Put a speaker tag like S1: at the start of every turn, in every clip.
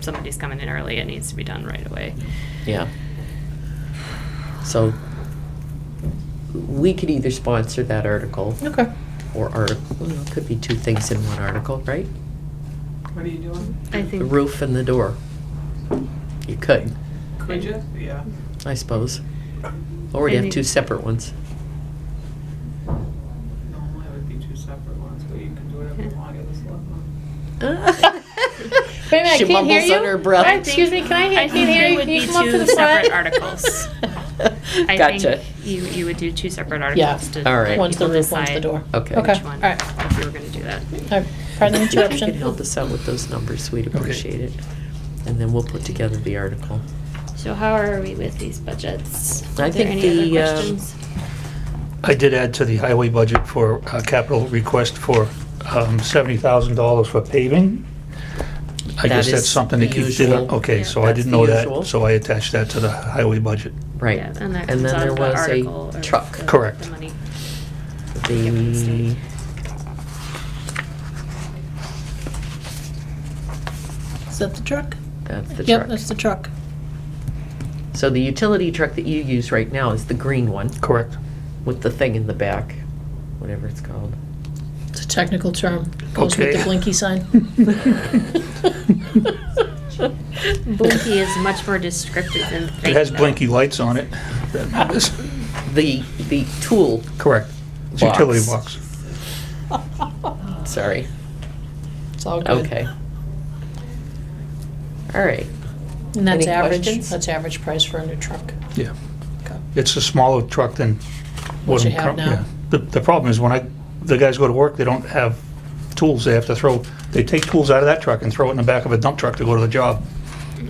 S1: somebody's coming in early, it needs to be done right away.
S2: Yeah. So we could either sponsor that article
S3: Okay.
S2: or article, it could be two things in one article, right?
S4: What are you doing?
S1: I
S2: The
S1: think,
S2: roof and the door. You could,
S4: Could you? Yeah.
S2: I suppose. Or we'd
S1: I
S2: have
S1: think-
S2: two separate ones.
S4: Normally it would be two separate ones, but you can do whatever you want. It was one.
S2: Wait
S3: Wait a minute, I
S2: She
S3: can't hear
S2: mumbles
S3: you.
S2: under her
S3: Uh,
S1: I
S2: breath.
S3: Excuse me,
S1: think-
S3: can I hear,
S1: I
S3: can
S1: think
S3: hear
S1: they
S3: you?
S1: would
S3: Can you
S1: be
S3: come up to
S1: two
S3: the front?
S1: separate articles. I
S2: Gotcha.
S1: think you, you would do two separate
S3: Yeah.
S1: articles to
S2: All right.
S1: let
S3: One's the
S1: people
S3: roof, one's the
S1: decide
S3: door.
S2: Okay.
S3: Okay,
S1: which
S3: all
S1: one,
S3: right.
S1: if you were gonna do that.
S3: All right. Pardon the
S2: If you could help
S3: interruption.
S2: us out with those numbers, we'd
S5: Okay.
S2: appreciate it. And then we'll put together the article.
S1: So how are we with these budgets?
S2: I
S1: Are there
S2: think
S1: any
S2: the,
S1: other
S2: um,
S1: questions?
S5: I did add to the highway budget for uh, capital request for um, $70,000 for paving.
S2: That
S5: I guess that's
S2: is
S5: something to
S2: the
S5: keep,
S2: usual.
S5: okay,
S1: Yeah.
S5: so I
S2: That's
S5: didn't
S2: the
S5: know
S2: usual.
S5: that, so I attached that to the highway budget.
S2: Right.
S1: Yeah, And that
S2: And
S1: comes
S2: then
S1: out
S2: there
S1: of the
S2: was
S1: article.
S2: a
S1: or
S2: truck.
S1: the-
S5: Correct.
S1: the money.
S2: The,
S3: Is that the truck?
S2: that's uh, the
S3: Yep,
S2: truck.
S3: that's the truck.
S2: So the utility truck that you use right now is the green one
S5: Correct.
S2: with the thing in the back, whatever it's called.
S3: It's a technical term. Goes with the
S5: Okay.
S3: blinky sign.
S1: Blinky is much more descriptive than
S5: It
S1: thing,
S5: has
S1: though.
S5: blinky lights on it. That matters.
S2: The, the tool,
S5: Correct. It's
S2: Box.
S5: utility box.
S2: sorry,
S3: It's all good.
S2: okay. All right,
S3: And that's
S2: Any
S3: average,
S2: questions?
S3: that's average price for a new truck.
S5: Yeah.
S3: Okay.
S5: It's a smaller truck than.
S3: What
S5: I'm
S3: you have
S5: cur-
S3: now.
S5: yeah. The, the problem is when I, the guys go to work, they don't have tools. They have to throw, they take tools out of that truck and throw it in the back of a dump truck to go to the job,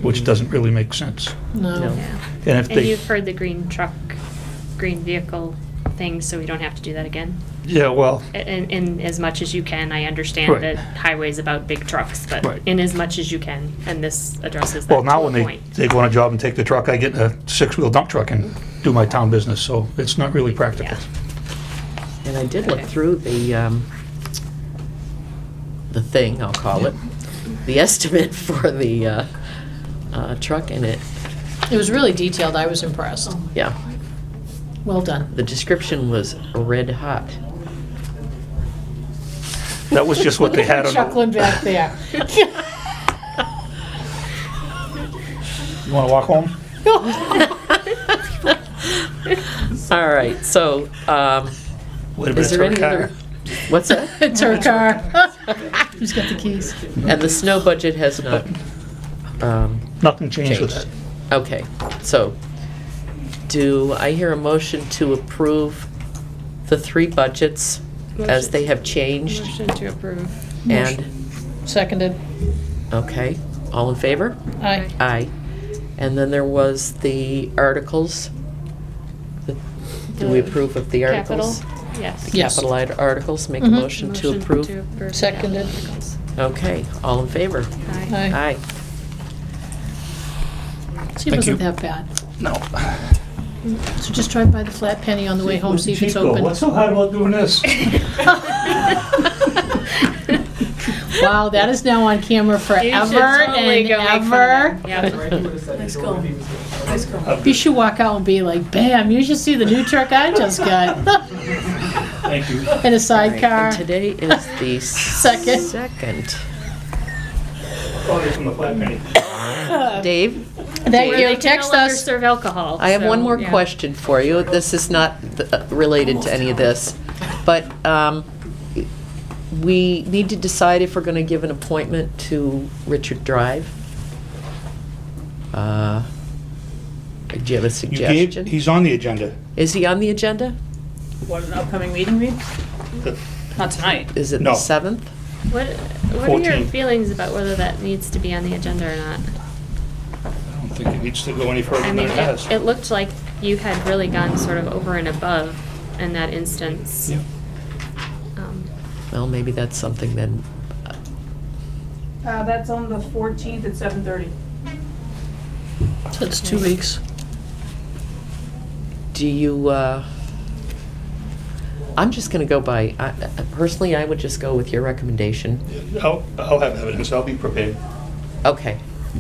S5: which doesn't really make sense.
S3: No.
S2: No.
S1: Yeah.
S5: And if
S1: And
S5: they,
S1: you've heard the green truck, green vehicle thing, so we don't have to do that again?
S5: yeah, well,
S1: In, in as much as you can, I understand
S5: Right.
S1: that highway's about big trucks, but
S5: Right.
S1: in as much as you can, and this addresses that
S5: well, now
S1: to a
S5: when they,
S1: point.
S5: they go on a job and take the truck, I get in a six-wheel dump truck and do my town business, so it's not really practical.
S1: Yeah.
S2: and I did look
S1: Okay.
S2: through the, um, the thing, I'll call it, the estimate for the, uh, uh, truck in it,
S3: It was really detailed. I was impressed.
S2: yeah.
S3: Well done.
S2: The description was red hot.
S5: That was just what they had on, the-
S3: Chuckling back there.
S5: you wanna walk home?
S2: All right, so, um,
S5: Wait a
S2: Is
S5: minute,
S2: there
S5: her
S2: any other-
S5: car.
S2: what's that?
S3: It's her car. Who's got the keys?
S2: And the snow budget has not, um,
S5: Nothing changed with that.
S2: Changed. Okay, so, do I hear a motion to approve the three budgets as
S1: Motion.
S2: they have changed?
S1: Motion to approve.
S2: And,
S3: Seconded.
S2: okay, all in favor?
S3: Aye.
S2: Aye. And then there was the articles. The- Do we
S1: The
S2: approve of the
S1: Capital,
S2: articles?
S1: yes.
S3: Yeah. Yes.
S2: Capitalized articles, make a
S3: Mhm.
S2: motion to approve.
S1: approve
S3: Seconded.
S1: capital articles.
S2: Okay, all in favor?
S1: Aye.
S3: Aye.
S2: Aye.
S3: See, it
S5: Thank
S3: wasn't
S5: you.
S3: that bad.
S5: No.
S3: So just drive by the flat penny on the way home, see if it's open.
S5: so hard about doing this?
S3: Wow, that is now on camera forever
S1: You should
S3: and
S1: totally go make fun
S3: ever.
S1: of them. Yep.
S4: Right, he would have said. Nice
S6: call. Nice call.
S3: You should walk out and be like, bam, you should see the new truck I just got.
S5: Thank you.
S3: In a sidecar.
S2: And today is the
S3: Second.
S2: second.
S5: Probably from the flat penny.
S2: Dave,
S3: Thank
S1: They
S3: you.
S1: can
S3: Text
S1: no longer
S3: us.
S1: Serve alcohol.
S2: I have one
S1: so,
S2: more
S1: yeah.
S2: question for you. This is not th- uh, related to any of this, but um, we need to decide if we're going to give an appointment to Richard Drive. Uh, Do you have a
S7: You gave,
S2: suggestion?
S7: he's on the agenda.
S2: Is he on the agenda?
S6: What an upcoming meeting means? Not tonight.
S2: Is it the
S7: No.
S2: 7th?
S1: What, what are your
S7: 14.
S1: feelings about whether that needs to be on the agenda or not?
S7: I don't think it needs to go any further
S1: I
S7: than
S1: mean,
S7: it
S1: it,
S7: has.
S1: it looked like you had really gone sort of over and above in that instance.
S7: Yeah.
S1: Um,
S2: Well, maybe that's something then.
S6: Uh, that's on the fourteenth at seven thirty.
S3: So It's two weeks.
S2: Do you, uh, I'm just going to go by, I- uh, I- personally, I would just go with your recommendation.
S7: I'll, I'll have evidence, I'll be prepared.
S2: Okay,